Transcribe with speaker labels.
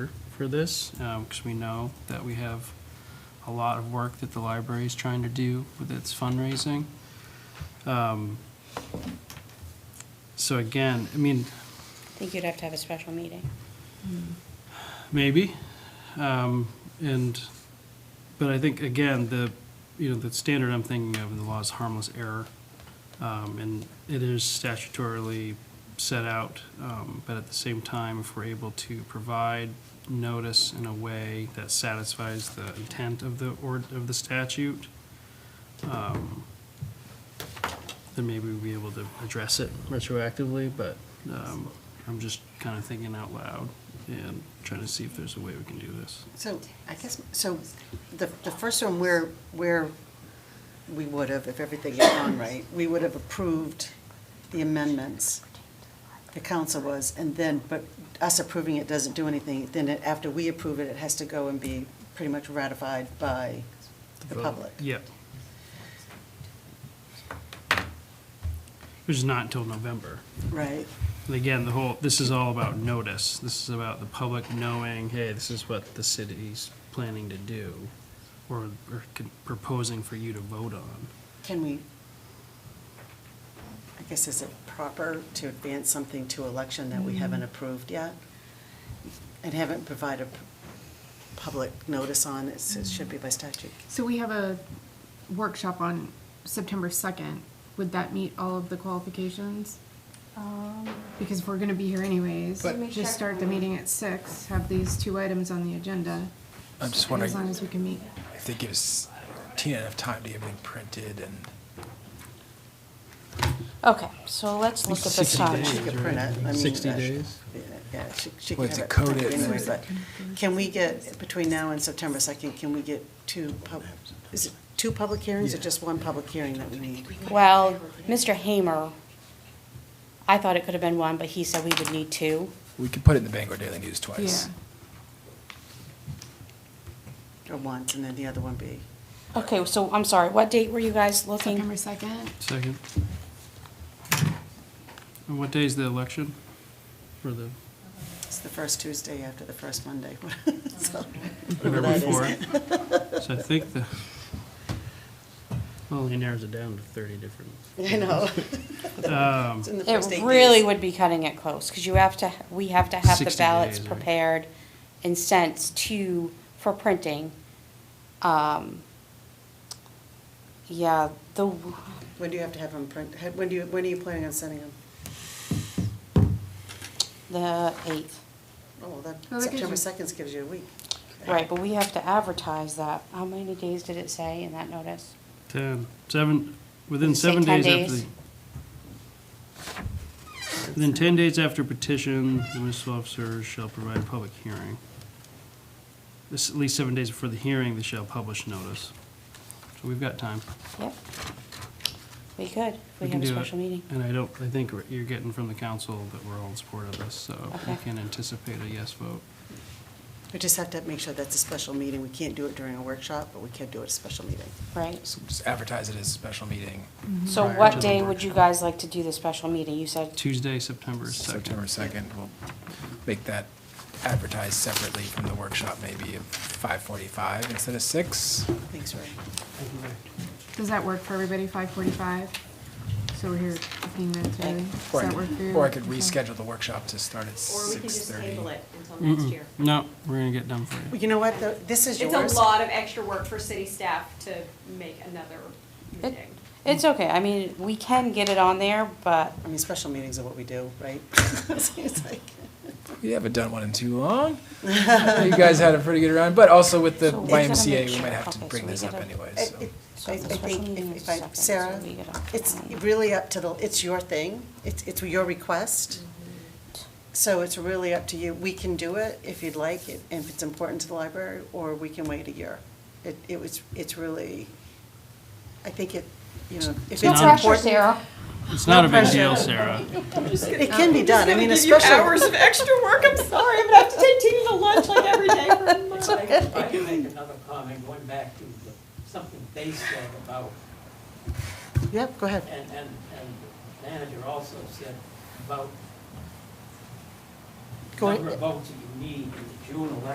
Speaker 1: for this, because we know that we have a lot of work that the library is trying to do with its fundraising. Um, So again, I mean,
Speaker 2: I think you'd have to have a special meeting.
Speaker 1: maybe. Um, And, but I think, again, the, you know, the standard I'm thinking of in the law is harmless error. Um, And it is statutorily set out, um, but at the same time, if we're able to provide notice in a way that satisfies the intent of the, or, of the statute, um, then maybe we'll be able to address it retroactively, but um, I'm just kind of thinking out loud and trying to see if there's a way we can do this.
Speaker 3: So, I guess, so the, the first one where, where we would have, if everything had gone right, we would have approved the amendments, the council was, and then, but us approving it doesn't do anything. Then it- after we approve it, it has to go and be pretty much ratified by the
Speaker 1: Vote.
Speaker 3: public.
Speaker 1: Yeah. Which is not until November.
Speaker 3: Right?
Speaker 1: And again, the whole, this is all about notice. This is about the public knowing, hey, this is what the city's planning to do or, or con- proposing for you to vote on.
Speaker 3: Can we, I guess, is it proper to advance something to election that we haven't approved yet? And haven't provided p- public notice on, It's- it should be by statute.
Speaker 4: So we have a workshop on September second. Would that meet all of the qualifications? Because if we're gonna be here anyways,
Speaker 5: But- Um, Let me
Speaker 4: just
Speaker 5: check
Speaker 4: start the
Speaker 5: my-
Speaker 4: meeting at six, have these two items on the agenda.
Speaker 5: I'm just
Speaker 4: and As long
Speaker 5: wondering
Speaker 4: as we can meet.
Speaker 5: if they give us Tina enough time to get everything printed and.
Speaker 2: Okay, so let's look at this
Speaker 1: 60
Speaker 3: She
Speaker 2: on.
Speaker 1: days.
Speaker 3: could print it, I mean.
Speaker 1: 60
Speaker 3: uh, she-
Speaker 1: days?
Speaker 3: Yeah, she, she
Speaker 5: Well,
Speaker 3: could have it
Speaker 5: it's a code
Speaker 3: printed
Speaker 5: it's-
Speaker 3: anyway, but can we get, between now and September second, can we get two pub, is it two public hearings or
Speaker 1: Yeah.
Speaker 3: just one public hearing that we need?
Speaker 2: Well, Mr. Hamer, I thought it could have been one, but he said we would need two.
Speaker 5: We could put it in the Bangor Daily News twice.
Speaker 4: Yeah.
Speaker 3: Or once, and then the other one be?
Speaker 2: Okay, so I'm sorry, what date were you guys
Speaker 4: September
Speaker 2: looking?
Speaker 4: second,
Speaker 1: Second. And what day is the election for the?
Speaker 3: It's the first Tuesday after the first Monday.
Speaker 6: Mm-hmm.
Speaker 3: So, whatever
Speaker 1: November
Speaker 3: that is.
Speaker 1: fourth. So I think the, well, he narrows it down to thirty different.
Speaker 3: I know.
Speaker 1: Um,
Speaker 3: It's in the first
Speaker 2: It
Speaker 3: eight
Speaker 2: really
Speaker 3: days.
Speaker 2: would be cutting it close, because you have to, we have to have the
Speaker 1: 60
Speaker 2: ballots
Speaker 1: days, right?
Speaker 2: prepared and sent to, for printing. Um, Yeah, the,
Speaker 3: When do you have to have them print, had- when do you, when are you planning on sending them?
Speaker 2: the eighth,
Speaker 3: Oh, well, that,
Speaker 4: Well, that gives
Speaker 3: September
Speaker 4: you-
Speaker 3: second gives you a week.
Speaker 2: right, but we have to advertise that. How many days did it say in that notice?
Speaker 1: ten, seven, within
Speaker 2: Did it say
Speaker 1: seven
Speaker 2: 10
Speaker 1: days after
Speaker 2: days?
Speaker 1: the. Within ten days after petition, the municipal officer shall provide a public hearing. This, at least seven days before the hearing, they shall publish notice. So we've got time.
Speaker 2: Yep. We could, if we
Speaker 1: can
Speaker 2: have a
Speaker 1: do it.
Speaker 2: special meeting.
Speaker 1: And I don't, I think we're- you're getting from the council that we're all in support of this, so we
Speaker 2: Okay.
Speaker 1: can anticipate a yes vote.
Speaker 3: We just have to make sure that's a special meeting. We can't do it during a workshop, but we can do it at a special meeting.
Speaker 2: Right.
Speaker 5: So just advertise it as a special meeting,
Speaker 2: So
Speaker 5: Prior to
Speaker 2: what
Speaker 5: the
Speaker 2: day would you
Speaker 5: workshop.
Speaker 2: guys like to do the special meeting? You said,
Speaker 1: Tuesday, September
Speaker 5: September
Speaker 1: 2nd.
Speaker 5: second. We'll make that advertised separately from the workshop, maybe at five forty-five instead of six.
Speaker 3: Thanks, Ray.
Speaker 4: does that work for everybody, five forty-five? So we're here fifteen minutes
Speaker 3: Like-
Speaker 4: early,
Speaker 5: Or
Speaker 4: does
Speaker 5: I
Speaker 4: that work for
Speaker 5: could-
Speaker 4: you?
Speaker 5: or I could
Speaker 4: Okay.
Speaker 5: reschedule the workshop to start at
Speaker 6: Or we can
Speaker 5: six
Speaker 6: just
Speaker 5: thirty.
Speaker 6: table it until next year.
Speaker 1: No, we're gonna get done for you.
Speaker 3: You know what, though? This is yours.
Speaker 6: It's a lot of extra work for city staff to make another
Speaker 2: it,
Speaker 6: meeting.
Speaker 2: it's okay. I mean, we can get it on there, but
Speaker 3: I mean, special meetings are what we do, right? It's like-
Speaker 5: We haven't done one in too long. You guys had a pretty good round, but also with the
Speaker 2: So we gotta make
Speaker 5: YMCA, we
Speaker 2: sure-
Speaker 5: might have to
Speaker 2: okay, so
Speaker 5: bring
Speaker 2: we
Speaker 5: this up
Speaker 2: gotta-
Speaker 5: anyway,
Speaker 3: I-
Speaker 5: so.
Speaker 3: it-
Speaker 2: So
Speaker 3: I I
Speaker 2: the special
Speaker 3: think,
Speaker 2: meeting
Speaker 3: if-
Speaker 2: is
Speaker 3: if I,
Speaker 2: second, so
Speaker 3: Sarah,
Speaker 2: we get up
Speaker 3: it's
Speaker 2: on-
Speaker 3: really up to the, it's your thing. It's, it's your request. So it's really up to you. We can do it if you'd like, if if it's important to the library, or we can wait a year. It, it was, it's really, I think it, you know, if it's
Speaker 2: no pressure,
Speaker 3: important.
Speaker 2: Sarah.
Speaker 1: It's not a big
Speaker 3: pressure.
Speaker 1: deal, Sarah.
Speaker 3: It can be done. I mean,
Speaker 6: Give Um, you
Speaker 3: especially.
Speaker 6: hours of extra work, I'm sorry, I'm gonna have to take Tina to lunch like every day for a month.
Speaker 7: If I can make another comment, going back to the- something they said about,
Speaker 3: Yep, go ahead.
Speaker 7: and, and, and the manager also said about
Speaker 3: Go
Speaker 7: number of
Speaker 3: ahead.
Speaker 7: votes that you need in the June election.